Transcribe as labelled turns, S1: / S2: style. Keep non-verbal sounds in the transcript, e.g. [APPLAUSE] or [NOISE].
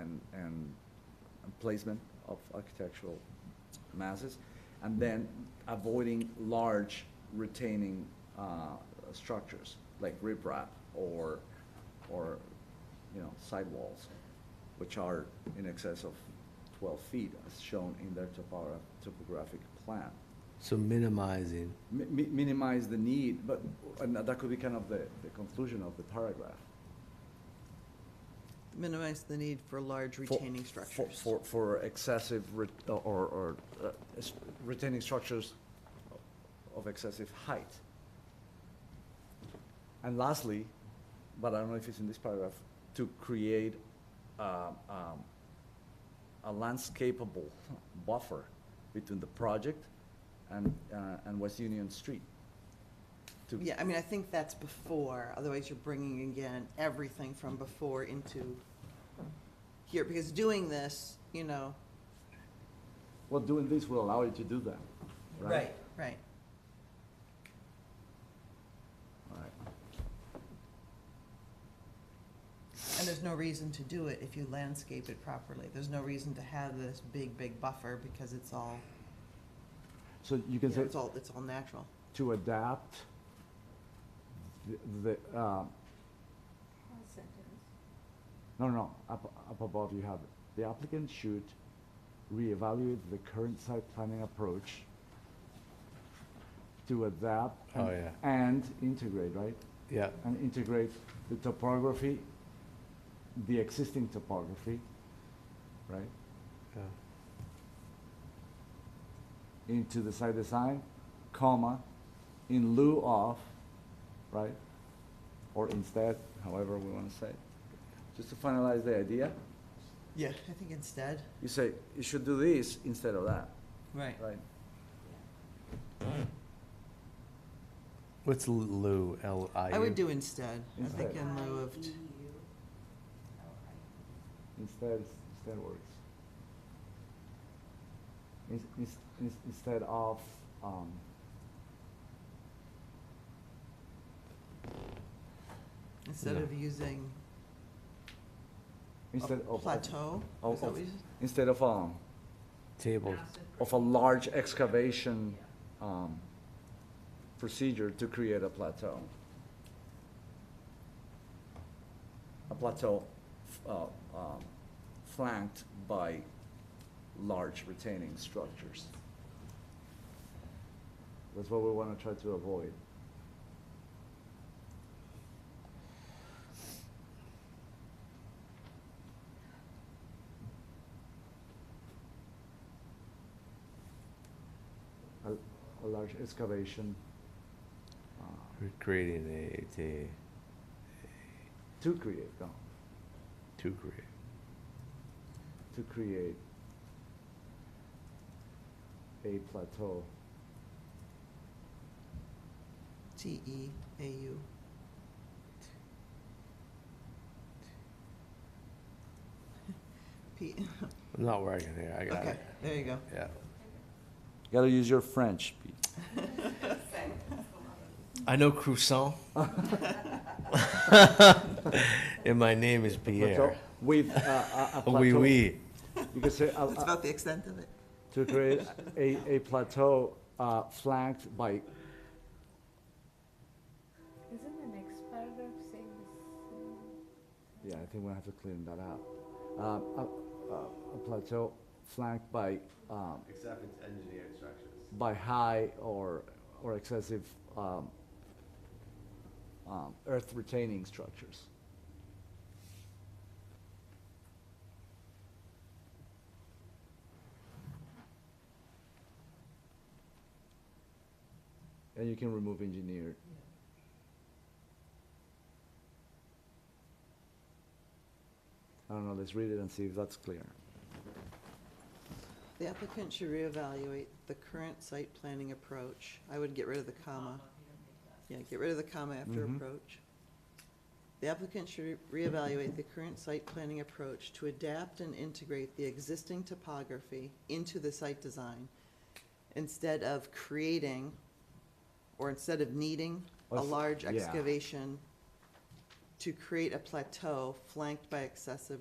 S1: and and placement of architectural masses, and then avoiding large retaining uh, structures like riprap or, or, you know, sidewalls, which are in excess of 12 feet as shown in their topogra- topographic plan.
S2: So minimizing,
S1: Mi- mi- Minimize the need, but, and that could be kind of the the conclusion of the paragraph.
S3: Minimize the need for large
S1: for-
S3: retaining
S1: for-
S3: structures.
S1: For, for excessive re- or, or uh, s- retaining structures of excessive height. And lastly, but I don't know if it's in this paragraph, to create um, um, a landscapable buffer between the project and, uh, and West Union Street. To-
S3: Yeah, I mean, I think that's before, otherwise you're bringing again everything from before into here, because doing this, you know.
S1: Well, doing this will allow you to do that, right?
S3: Right.
S1: All right.
S3: And there's no reason to do it if you landscape it properly. There's no reason to have this big, big buffer because it's all,
S1: So you
S3: you
S1: can
S3: know,
S1: say.
S3: it's all, it's all natural.
S1: to adapt the, the um,
S4: One sentence.
S1: no, no, no, up, up above you have, it. the applicant should reevaluate the current site planning approach to adapt
S2: Oh,
S1: and-
S2: yeah.
S1: and integrate, right?
S2: yeah,
S1: And integrate the topography, the existing topography, right?
S2: yeah.
S1: into the site design, comma, in lieu of, right? Or instead, however we want to say it. Just to finalize the idea,
S3: Yeah. I think instead.
S1: you say, you should do this instead of that,
S3: Right.
S1: right?
S2: What's Lu, L I U?
S3: I would do instead. I
S1: Instead.
S3: think in
S4: E
S3: lieu of, t-
S1: Instead, instead works. Ins- ins- ins- Instead of, um,
S3: instead
S2: Yeah.
S3: of using a
S1: instead of.
S3: plateau.
S1: of-
S3: Is that
S1: of-
S3: what you said?
S1: Instead of, um,
S2: Table,
S1: of a large excavation, um, procedure to create a plateau. A plateau, f- uh, um, flanked by large retaining structures. That's what we wanna try to avoid. A, a large excavation, uh,
S2: we're creating a, a,
S1: to create, no,
S2: to create.
S1: to create a plateau.
S3: T E A U. [LAUGHS] P,
S2: I'm not working here, I got
S3: okay,
S2: it,
S3: there you go.
S2: yeah.
S1: Gotta use your French, Pete.
S2: I know croissant. [LAUGHS] And my name is
S1: Plateau
S2: Pierre.
S1: With uh, a, a plateau.
S2: [LAUGHS] Oui, oui.
S1: You could say, uh,
S3: That's
S1: uh,
S3: about the extent of it.
S1: to create a, a plateau uh, flanked by,
S4: Isn't the next paragraph saying this?
S1: yeah, I think we'll have to clean that up. Um, a, a, a plateau flanked by, um,
S5: Except it's engineered structures.
S1: by high or, or excessive um, um, earth retaining structures. And you can remove engineered. I don't know, let's read it and see if that's clear.
S3: The applicant should reevaluate the current site planning approach. I would get rid of the comma. Yeah, get rid of the comma after
S1: Mhm.
S3: approach. The applicant should reevaluate the current site planning approach to adapt and integrate the existing topography into the site design instead of creating, or instead of needing, a
S1: Us-
S3: large
S1: yeah.
S3: excavation to create a plateau flanked by excessive